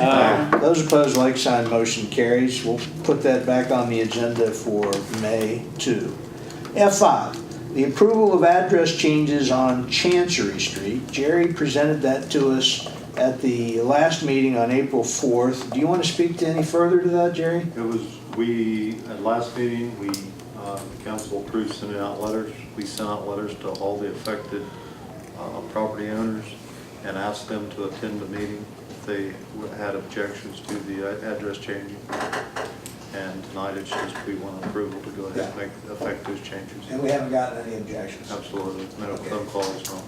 Aye. Those opposed, like sign, motion carries. We'll put that back on the agenda for May 2. F5, the approval of address changes on Chancery Street. Jerry presented that to us at the last meeting on April 4th. Do you want to speak to any further to that, Jerry? It was, we, at last meeting, we, uh, the council approved sending out letters. We sent out letters to all the affected uh, property owners and asked them to attend the meeting if they had objections to the uh, address changing. And tonight, it's just we want approval to go ahead and make, affect those changes. we haven't gotten any objections. Absolutely, no phone calls, no.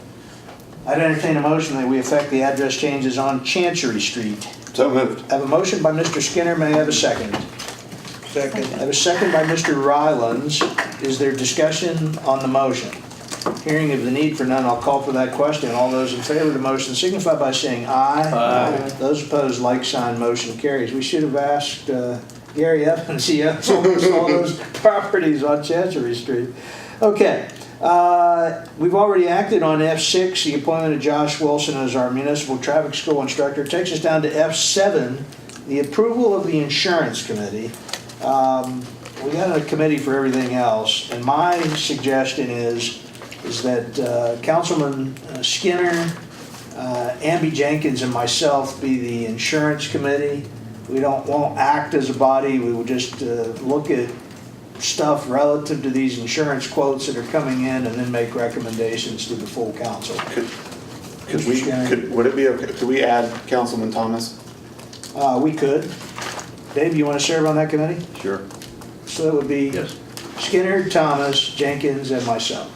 I'd entertain a motion that we affect the address changes on Chancery Street. So moved. I have a motion by Mr. Skinner, may I have a second? Second. I have a second by Mr. Rylands. Is there discussion on the motion? Hearing of the need for none, I'll call for that question. All those in favor of the motion signify by saying aye. Aye. Those opposed, like sign, motion carries. We should have asked uh, Gary Evans, he owns almost all those properties on Chancery Street. Okay, uh, we've already acted on F6, the appointment of Josh Wilson as our municipal traffic school instructor. Takes us down to F7, the approval of the insurance committee. Um, We got a committee for everything else, and my suggestion is, is that uh, Councilman Skinner, uh, Amby Jenkins, and myself be the insurance committee. We don't, won't act as a body, we will just uh, look at stuff relative to these insurance quotes that are coming in and then make recommendations to the full council. Could could we, Shannon. could, would it be okay, could we add Councilman Thomas? Uh, we could. Dave, you want to serve on that committee? Sure. So that would be Yes. Skinner, Thomas, Jenkins, and myself.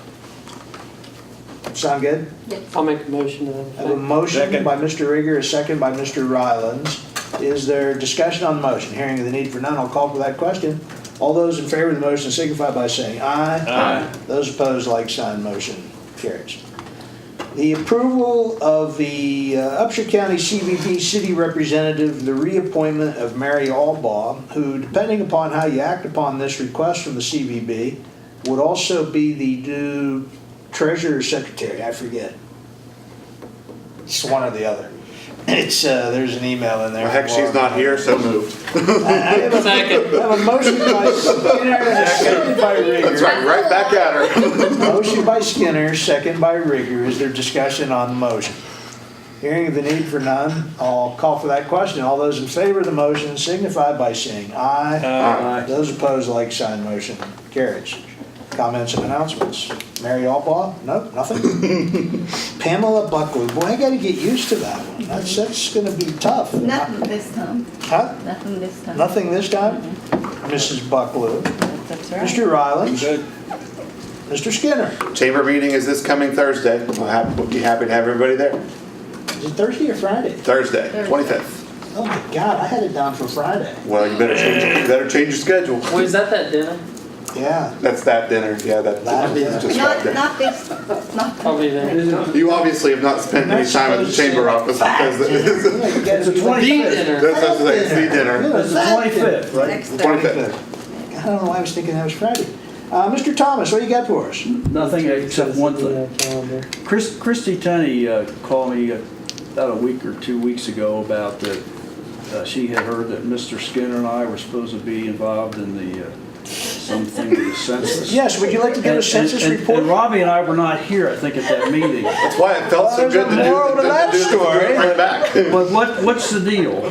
Sound good? I'll make a motion to I have a that. motion Second. by Mr. Rigger, a second by Mr. Rylands. Is there discussion on the motion? Hearing of the need for none, I'll call for that question. All those in favor of the motion signify by saying aye. Uh, Aye. Those opposed, like sign, motion carries. The approval of the uh, Upshur County CBP City Representative, the reappointment of Mary Albaugh, who, depending upon how you act upon this request from the CBB, would also be the new treasurer secretary, I forget. It's one or the other. It's, uh, there's an email in there. Heck, she's not here, so moved. I have a- Second. I have a motion by Skinner, and a second by That's Rigger. right, right back at her. Motion by Skinner, second by Rigger. Is there discussion on the motion? Hearing of the need for none, I'll call for that question. All those in favor of the motion signify by saying aye. Aye. Those opposed, like sign, motion carries. Comments and announcements. Mary Albaugh? Nope, nothing. Pamela Buckley, boy, I gotta get used to that one. That's, that's gonna be tough. Nothing this time, Huh? nothing this time. Nothing this time? Mrs. Bucklew, That's right. Mr. Rylands, Mr. Skinner. Chamber meeting is this coming Thursday. We'll have, we'll be happy to have everybody there. Is it Thursday or Friday? Thursday, Thursday. twenty-fifth. Oh my God, I had it down for Friday. Well, you better change, you better change your schedule. Wait, is that that dinner? Yeah. That's that dinner, yeah, that, That that's dinner. just right Not, not there. this, not. Probably then. You obviously have not spent any That's time at the supposed to chamber be office because this is, It's the The dinner. that's, that's, that's the dinner. It's the twenty-fifth, right? Next Thursday. Twenty-fifth. I don't know why I was thinking that was Friday. Uh, Mr. Thomas, what do you got for us? Nothing except one Yeah, thing. calendar. Chris, Christy Tunney uh, called me uh, about a week or two weeks ago about that uh, she had heard that Mr. Skinner and I were supposed to be involved in the, uh, something with the census. Yes, would you like to give a And- census and- and- report? And Robbie and I were not here, I think, at that meeting. That's why it felt Well, so there's a good to do, to moral to that do- to do story. it right back. But what, what's the deal? Uh,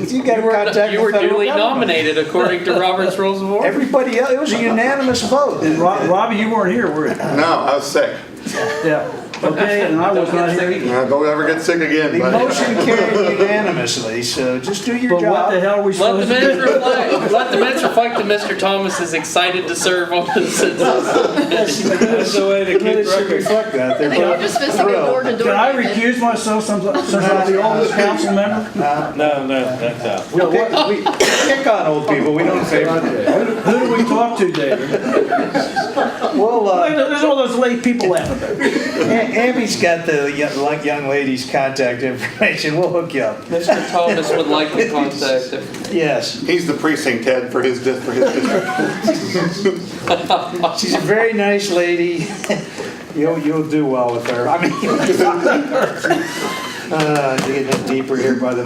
You gotta contact You the were federal duly government. nominated according to Robert's Rules of Order. Everybody else, it was a unanimous vote. And Rob- Robbie, you weren't here, were you? No, I was sick. Yeah, okay, and I was not here. No, Don't ever get sick again, The buddy. motion carried unanimously, so just do your But what the job. hell are we Let the supposed to minutes do? reflect, let the minutes reflect that Mr. Thomas is excited to serve on the census. That's the way to keep Reflect that, they're I think we're both just supposed to go door thrilled. to door. Can I recuse myself since I'm since I'm the oldest council member? No, no, that's out. We pick- We pick on old people, we don't favor them. Who do we talk to, David? Well, uh, There's all those late people out there. A- Abby's got the yo- like young lady's contact information. We'll hook you up. Mr. Thomas would like to contact if Yes, He's the precinct head for his, dis- for his district. she's a very nice lady. You'll you'll do well with her. I mean, uh, getting deeper here by the